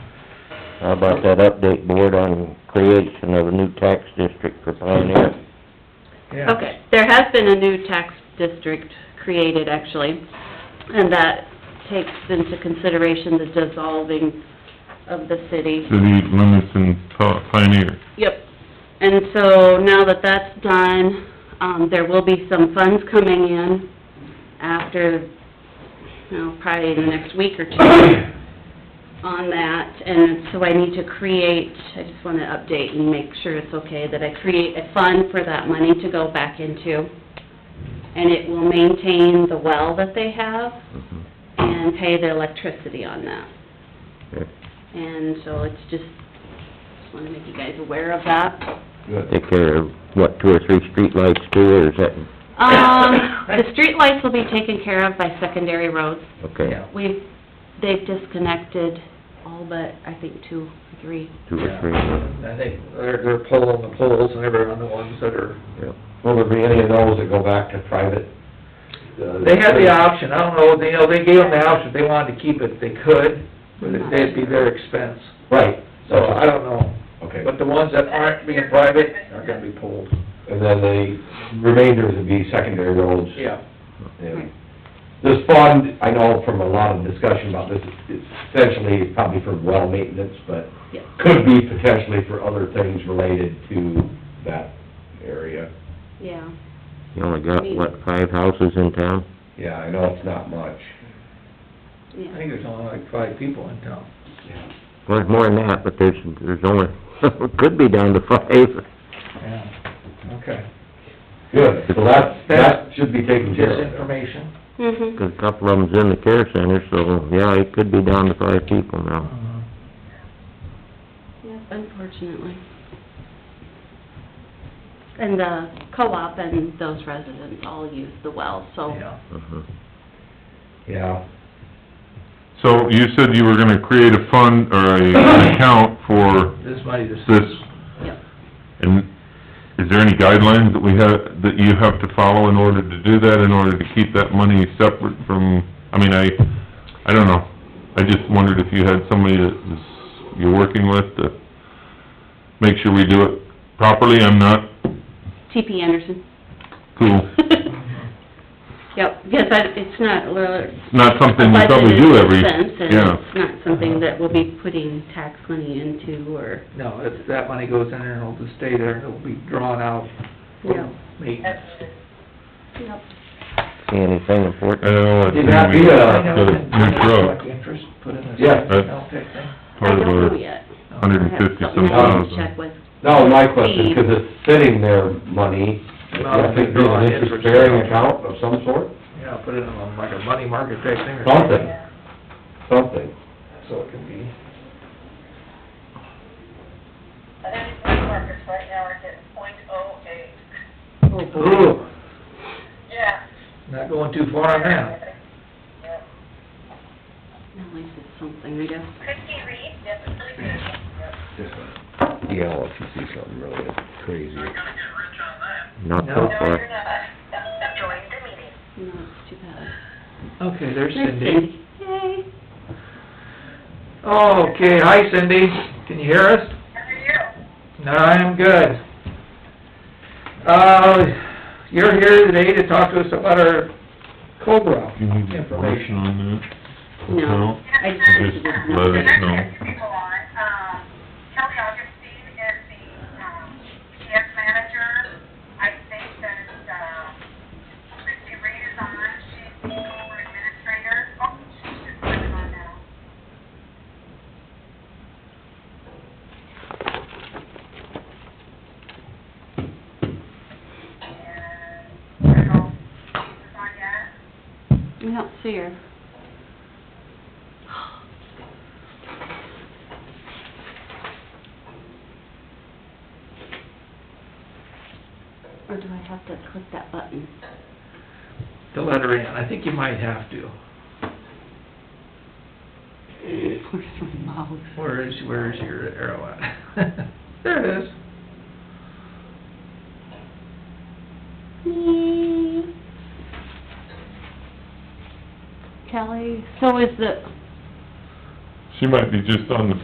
How about that update board on creation of a new tax district for Pioneer? Yeah. Okay, there has been a new tax district created, actually, and that takes into consideration the dissolving of the city. city limits and Pioneer. Yep. And so now that that's done, um, there will be some funds coming in after, you know, probably in the next week or two on that. And so I need to create, I just wanna update and make sure it's okay, that I create a fund for that money to go back into. And it will maintain the well that they have and pay the electricity on that. And so it's just, just wanna make you guys aware of that. Take care of, what, two or three streetlights too, or is that, Um, the streetlights will be taken care of by secondary roads. okay, Yeah. We've, they've disconnected all but, I think, two, three. two or three? And I think they're, they're pulling the poles and everything on the ones that are, yeah. Will there be any of those that go back to private? Uh, they had the option, I don't know, they, you know, they gave them the option, if they wanted to keep it, they could, but it- that'd be their expense, Right, so I don't know. okay. But the ones that aren't being private are gonna be pulled. And then the remainder would be secondary roads. Yeah. And This fund, I know from a lot of discussion about this, it's essentially probably for well maintenance, but Yeah. could be potentially for other things related to that area. Yeah. You only got, what, five houses in town? Yeah, I know it's not much. I Yeah. think there's only like five people in town. Well, there's more than that, but there's, there's only, could be down to five. Yeah, okay. Good, so that, that should be taken Just care of. information. Mm-hmm. 'Cause a couple of them's in the care center, so, yeah, it could be down to five people now. Uh-huh. Unfortunately. And the co-op and those residents all use the well, so. Yeah. Mhm. Yeah, So you said you were gonna create a fund or a an account for This might just. this, Yep. and is there any guidelines that we have, that you have to follow in order to do that, in order to keep that money separate from, I mean, I, I don't know. I just wondered if you had somebody that is, you're working with to make sure we do it properly. I'm not TP Anderson. cool. Yep, because I, it's not, really- Not something you probably do every, Budgeted expense, and yeah. it's not something that we'll be putting tax money into, or, No, it's, that money goes in there and it'll just stay there, and it'll be drawn out you for know. maintenance. See anything important? I know, it's Did not be anyway, a- got a new truck, Interest, put in this. Yeah. account type thing. I part of don't know our yet. hundred I and have fifty something some I need to thousand. Check with, no, my question, because it's sitting there money, Not I if think they there's draw an it in for- interest-bearing account of some sort, Yeah, put it in a- like a money market type thing or something, something. So it can be, And then flea markets right now are getting point oh eight. ooh, Yeah. not going too far on that. Yeah. at least it's something, I guess. Christie Reed, that's really good. Yeah, if you see something really crazy. gonna get rich on that. Not so No. No, far. you're not. Join the meeting. No, it's too bad. Okay, there's There's Cindy. Cindy. Yay. Okay, hi Cindy, can you hear us? How are you? No, I am good. Uh, you're here today to talk to us about our Cobra Do you need a information. motion on that? No. I Just let us know. People on, um, Kelly Augustine is the, um, PS manager. I think that, um, Christie Reed is on, she's the over administrator. Oh, she's just coming on now. And, I don't know, she's on yet. I don't see her. Or do I have to click that button? to let her in, I think you might have to. Where's my mouse? Where is, where is your arrow at? There it is. Yay. Kelly, so is the, She might be just on the